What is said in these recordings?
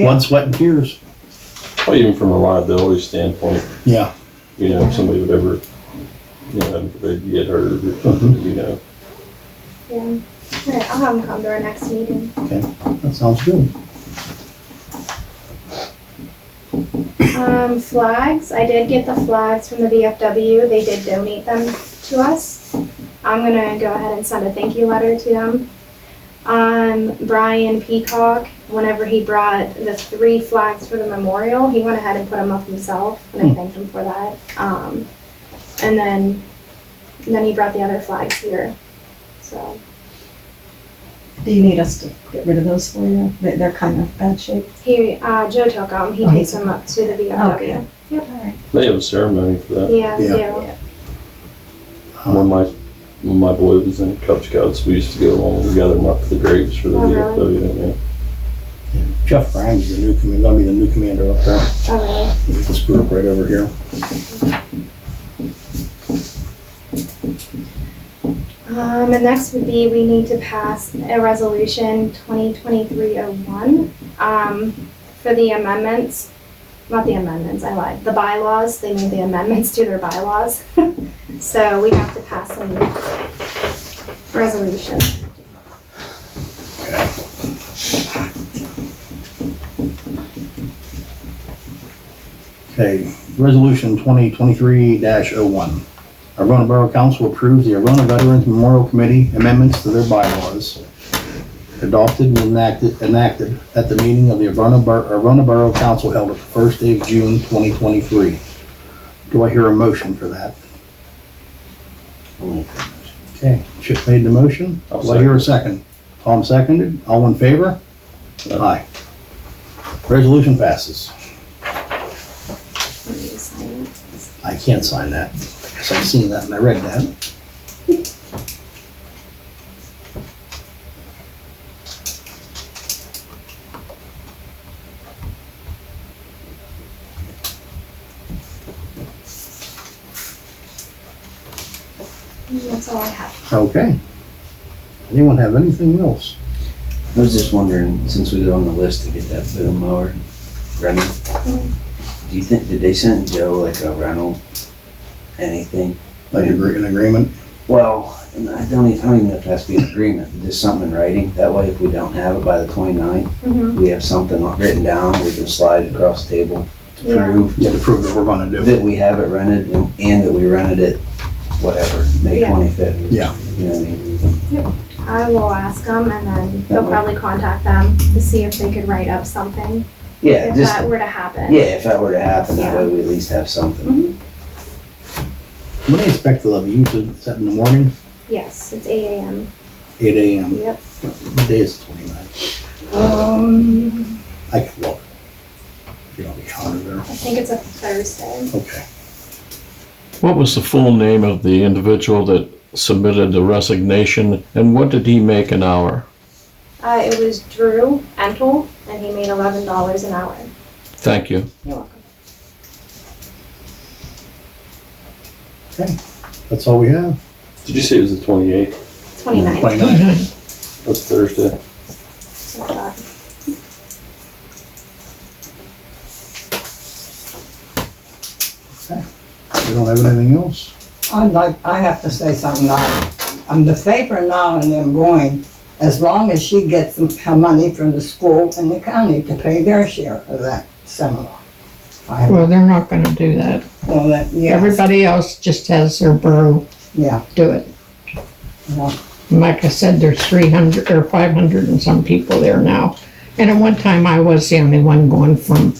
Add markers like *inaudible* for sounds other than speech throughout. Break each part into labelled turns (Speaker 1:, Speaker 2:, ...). Speaker 1: blood, sweat, and tears.
Speaker 2: Well, even from a liability standpoint,
Speaker 1: Yeah.
Speaker 2: you know, if somebody would ever, you know, they'd get hurt or something, you know.
Speaker 3: Yeah. All right, I'll have them come to our next meeting.
Speaker 1: That sounds good.
Speaker 3: Um, flags, I did get the flags from the VFW. They did donate them to us. I'm gonna go ahead and send a thank you letter to them. Um, Brian Peacock, whenever he brought the three flags for the memorial, he went ahead and put them up himself,
Speaker 4: Hmm.
Speaker 3: and I thanked him for that. Um, and then, then he brought the other flags here, so.
Speaker 4: Do you need us to get rid of those for you? They- They're kind of bad shape.
Speaker 3: He, uh, Joe took them, he
Speaker 4: Oh, he
Speaker 3: takes them up to the VFW.
Speaker 2: They have a ceremony for that.
Speaker 3: Yeah, they
Speaker 1: Yeah.
Speaker 3: do.
Speaker 2: When my, when my boy was in Cub Scouts, we used to go along and gather them up for the graves for the
Speaker 3: Oh, really?
Speaker 2: VFW, yeah.
Speaker 1: Jeff Ryan's the new commander, gonna be the new commander up there.
Speaker 3: Oh, really?
Speaker 1: With this group right over here.
Speaker 3: Um, and next would be we need to pass a resolution 2023-01 um, for the amendments, not the amendments, I lied, the bylaws, they need the amendments to their bylaws. *laughs* So we have to pass a resolution.
Speaker 1: Okay, resolution twenty twenty-three dash oh one. Arona Borough Council approves the Arona Veterans Memorial Committee amendments to their bylaws. Adopted and enacted, enacted at the meeting of the Arona Bor- Arona Borough Council held at the first day of June twenty twenty-three. Do I hear a motion for that? Okay, Chip made the motion.
Speaker 2: I'll
Speaker 1: Do I hear a second? Tom seconded. All in favor? Aye. Resolution passes.
Speaker 3: Let me sign it.
Speaker 1: I can't sign that. Because I've seen that and I read that.
Speaker 3: That's all I have.
Speaker 1: Okay. Anyone have anything else?
Speaker 5: I was just wondering, since we was on the list to get that boom mower running, do you think, did they send Joe like a rental, anything?
Speaker 1: Like agree- an agreement?
Speaker 5: Well, and I don't even, I don't even know if that's the agreement, but just something in writing, that way if we don't have it by the 29th,
Speaker 3: Mhm.
Speaker 5: we have something written down, we can slide it across the table to
Speaker 3: Yeah.
Speaker 5: prove
Speaker 1: Yeah, to prove that we're gonna do
Speaker 5: that
Speaker 1: it.
Speaker 5: we have it rented and- and that we rented it, whatever, May
Speaker 3: Yeah.
Speaker 5: twenty-fifth.
Speaker 1: Yeah.
Speaker 5: You know what I mean?
Speaker 3: I will ask them and then they'll
Speaker 5: Okay.
Speaker 3: probably contact them to see if they could write up something
Speaker 5: Yeah,
Speaker 3: if
Speaker 5: just,
Speaker 3: that were to happen.
Speaker 5: yeah, if that were to happen, that
Speaker 3: Yeah.
Speaker 5: way we at least have something.
Speaker 1: When do you expect the levy? You said seven in the morning,
Speaker 3: Yes, it's eight AM.
Speaker 1: eight AM.
Speaker 3: Yep.
Speaker 1: What day is twenty-nine?
Speaker 3: Um,
Speaker 1: I can look. You don't have a calendar there.
Speaker 3: I think it's a Thursday.
Speaker 1: Okay.
Speaker 6: What was the full name of the individual that submitted the resignation, and what did he make an hour?
Speaker 3: Uh, it was Drew Entel, and he made eleven dollars an hour.
Speaker 6: Thank you.
Speaker 3: You're welcome.
Speaker 1: That's all we have.
Speaker 2: Did you say it was the twenty-eighth?
Speaker 3: Twenty-nine.
Speaker 1: Twenty-nine.
Speaker 2: That's Thursday.
Speaker 1: We don't have anything else.
Speaker 7: I'd like, I have to say something now. I'm the favor now and I'm going, as long as she gets her money from the school and the county to pay their share of that seminar. I,
Speaker 8: Well, they're not gonna do that.
Speaker 7: well, that, yeah,
Speaker 8: Everybody else just has their borough
Speaker 7: yeah,
Speaker 8: do it.
Speaker 7: Yeah.
Speaker 8: And Like I said, there's three hundred or five hundred and some people there now. And at one time, I was the only one going from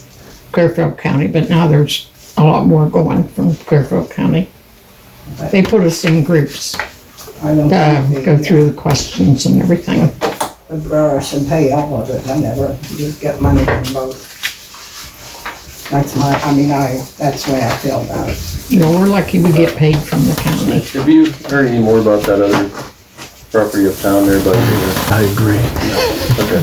Speaker 8: Clearfield County, but now there's a lot more going from Clearfield County. They put us in groups,
Speaker 7: I don't
Speaker 8: uh,
Speaker 7: think
Speaker 8: go
Speaker 7: the-
Speaker 8: through the questions and everything.
Speaker 7: The borough should pay all of it, I never, just get money from both. That's my, I mean, I, that's the way I feel about it.
Speaker 8: You know, we're lucky we get paid from the county.
Speaker 2: Have you heard any more about that other property uptown there by the,
Speaker 1: I agree.
Speaker 2: okay,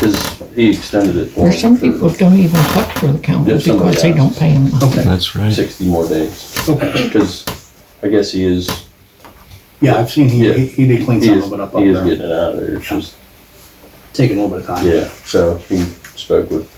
Speaker 2: cause he extended it for
Speaker 8: There's some
Speaker 2: him for
Speaker 8: people don't even put for the county
Speaker 2: Yes, somebody
Speaker 8: because they
Speaker 2: does.
Speaker 8: don't pay them.
Speaker 1: Okay.
Speaker 6: That's right.
Speaker 2: sixty more days. Cause I guess he is,
Speaker 1: Yeah, I've seen he,
Speaker 2: Yeah.
Speaker 1: he he did clean
Speaker 2: he
Speaker 1: some
Speaker 2: is,
Speaker 1: of it up up
Speaker 2: he is
Speaker 1: there.
Speaker 2: getting it out of there, it's just,
Speaker 1: Taking a little bit of time.
Speaker 2: yeah, so he spoke with